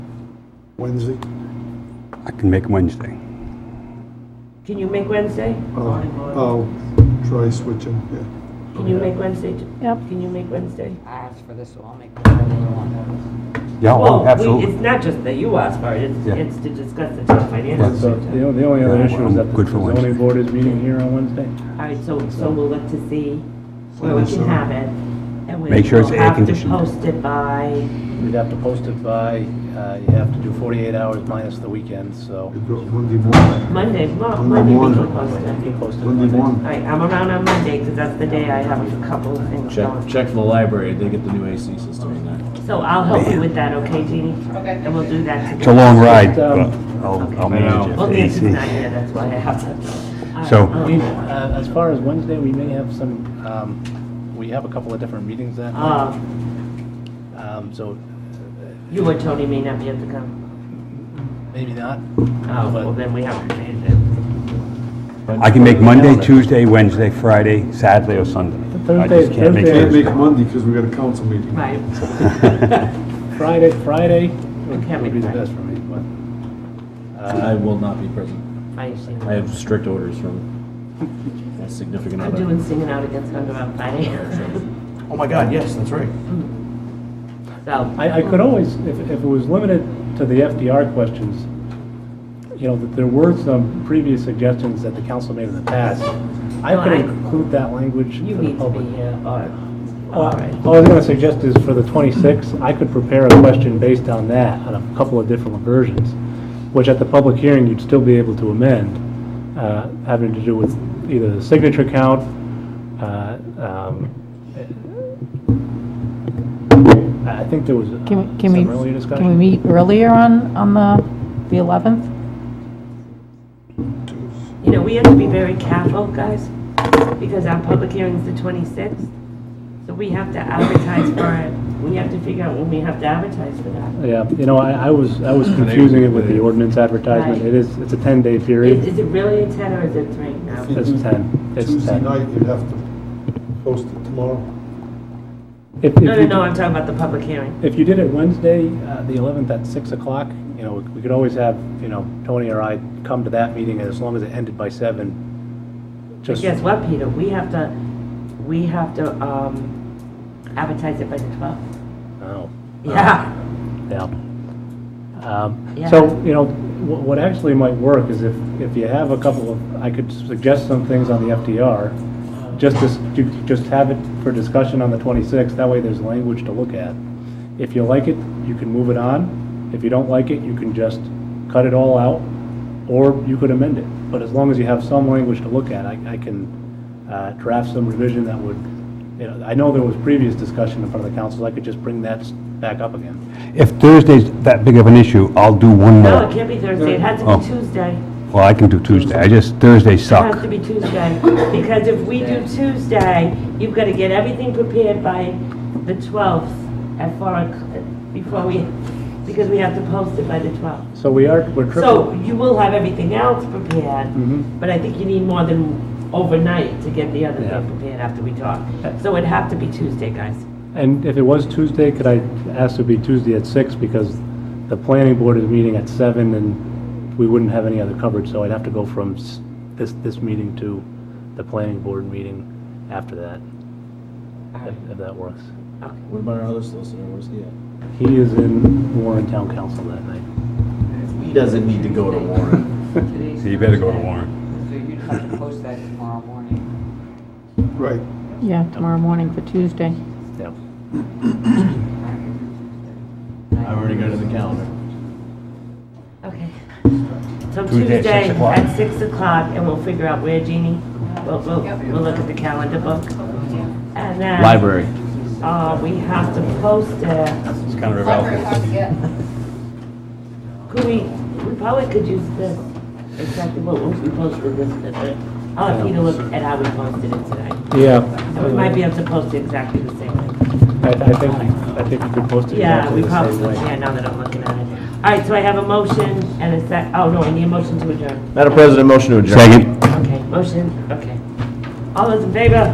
Wednesday? Oh, I can make Wednesday. Can you make Wednesday? Oh. I'll, I'll oh, try switching, yeah. Can you make Wednesday? t- Yep. Can you make Wednesday? I asked for this, so I'll make the regular one. Yeah, Well, oh, we- absolutely. It's not just that you asked for it, it's, Yeah. it's to discuss the town finances. So the o- the only other issue is that the Good for the Wednesday. zoning board is meeting here on Wednesday. All right, so, so we'll look to see where we can have it. and we uh, Make sure it's will have to air-conditioned. Post it by, We'd have to post it by, uh, you have to do 48 hours minus the weekend, so. We do it Monday morning. Monday, Mo- Monday Monday we can morning. post it. Post it Monday All morning. right, I'm around on Monday, because that's the day I have a couple of things Check, going. check for the library, they get the new AC system in there. So I'll help you with that, okay, Jeannie? Okay. And we'll do that together. It's a long ride, but Um, I'll, I'll I know. manage Well, it. Nancy's AC. not here, that's why I have to. All So- right, We- um, uh, As far as Wednesday, we may have some, um, we have a couple of different meetings that night. Uh, Um, So You or Tony may not be able to come. maybe not. Ah, Oh, well, then we have to change it. I can make Monday, Tuesday, Wednesday, Friday, Saturday, or Sunday. I just Thursday- can't make Thursday- Can't make Thursday. Monday because we got a council meeting. Right. Friday, Friday would would can't make be the Friday. best for me, but. I uh, will not be present. I see. I have strict orders from a significant I'm other. doing singing out against Thunder on Friday. Oh my God, yes, that's right. Mm-hmm. So, I, I could always, if, if it was limited to the FDR questions, you know, that there were some previous suggestions that the council made in the past. No, I could I- include that language you for the need to public. be here, or, Uh, Uh, All all I right. was going to suggest is for the 26th, I could prepare a question based on that, on a couple of different versions, which at the public hearing, you'd still be able to amend, uh, having to do with either the signature count, uh, um, I I think there was uh, Can we, can some earlier we, discussion. can we meet earlier on, on the, the 11th? You know, we have to be very careful, guys, because our public hearing's the 26th. So we have to advertise for it. We have to figure out when we have to advertise for that. Yeah, you know, I I was, I was confusing it with the ordinance advertisement. Right. It is, it's a 10-day Is, period. is it really a 10 or is it 3 now? It's 10, it's Tuesday 10. night, you'd have to post it tomorrow. If- if No, no, you- no, I'm talking about the public hearing. If you did it Wednesday, uh, the 11th at 6 o'clock, you know, we could always have, you know, Tony or I come to that meeting as long as it ended by 7. But Just, guess what, Peter? We have to, we have to, um, advertise it by the 12th. oh, Yeah. yeah. Um, Yeah. So, you know, wh- what actually might work is if, if you have a couple of, I could suggest some things on the FDR, just to, s- to- just have it for discussion on the 26th, that way there's language to look at. If you like it, you can move it on. If you don't like it, you can just cut it all out, or you could amend it. But as long as you have some language to look at, I, I can uh, draft some revision that would, you know, I know there was previous discussion in front of the council, I could just bring that s- back up again. If Thursday's that big of an issue, I'll do one No, it more. can't be Thursday, it has to Oh. be Tuesday. Well, I can do Tuesday, I just, Thursdays It has suck. to be Tuesday, because if we do Tuesday, you've got to get everything prepared by the 12th at 4, o'clock before we, because we have to post it by the 12th. So we are, we're So triple. you will have everything else prepared, Mhm. but I think you need more than overnight to get the other Yeah. thing prepared after we talk. So it'd have to be Tuesday, guys. And if it was Tuesday, could I ask to be Tuesday at six because the planning board is meeting at seven and we wouldn't have any other coverage, so I'd have to go from s- this, this meeting to the planning board meeting after that, if- if that works. What about our other solicitor, where's he at? He is in Warren Town Council that night. He doesn't need to go to Warren. Today's You better go to Thursday, Warren. So you'd have to post that tomorrow morning. Right. Yeah, tomorrow morning for Tuesday. Yeah. I already got it in the calendar. Okay. So Tuesday at Tuesday six o'clock. at 6 o'clock, and we'll figure out where, Jeannie? We'll, we'll, we'll look at the calendar book. And then. Library. Uh, we have to post it. It's kind of irrelevant. Could we, we probably could use this, exactly what we posted this, today. I'll have you to look at how we posted it tonight. Yeah. So we might be able to post it exactly the same way. I, I think, I think you could post it Yeah, exactly we the probably, same way. yeah, now that I'm looking at it. All right, so I have a motion and a sec, oh, no, I need a motion to adjourn. Madam President, motion to adjourn. Second. Okay, motion, okay. All those in favor?